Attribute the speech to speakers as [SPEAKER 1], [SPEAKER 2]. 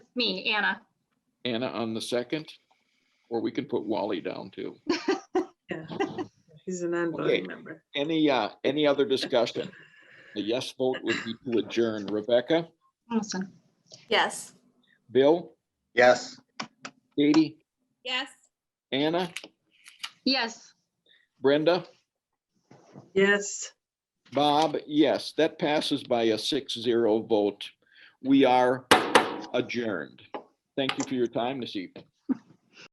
[SPEAKER 1] me, Anna.
[SPEAKER 2] Anna on the second, or we can put Wally down too.
[SPEAKER 3] Yeah, he's a non-voting member.
[SPEAKER 2] Any, uh, any other discussion? The yes vote would be to adjourn. Rebecca,
[SPEAKER 1] Listen.
[SPEAKER 4] Yes.
[SPEAKER 2] Bill,
[SPEAKER 5] Yes.
[SPEAKER 2] Katie,
[SPEAKER 4] Yes.
[SPEAKER 2] Anna,
[SPEAKER 1] Yes,
[SPEAKER 2] Brenda,
[SPEAKER 3] Yes,
[SPEAKER 2] Bob, yes, that passes by a six zero vote. We are adjourned. Thank you for your time this evening.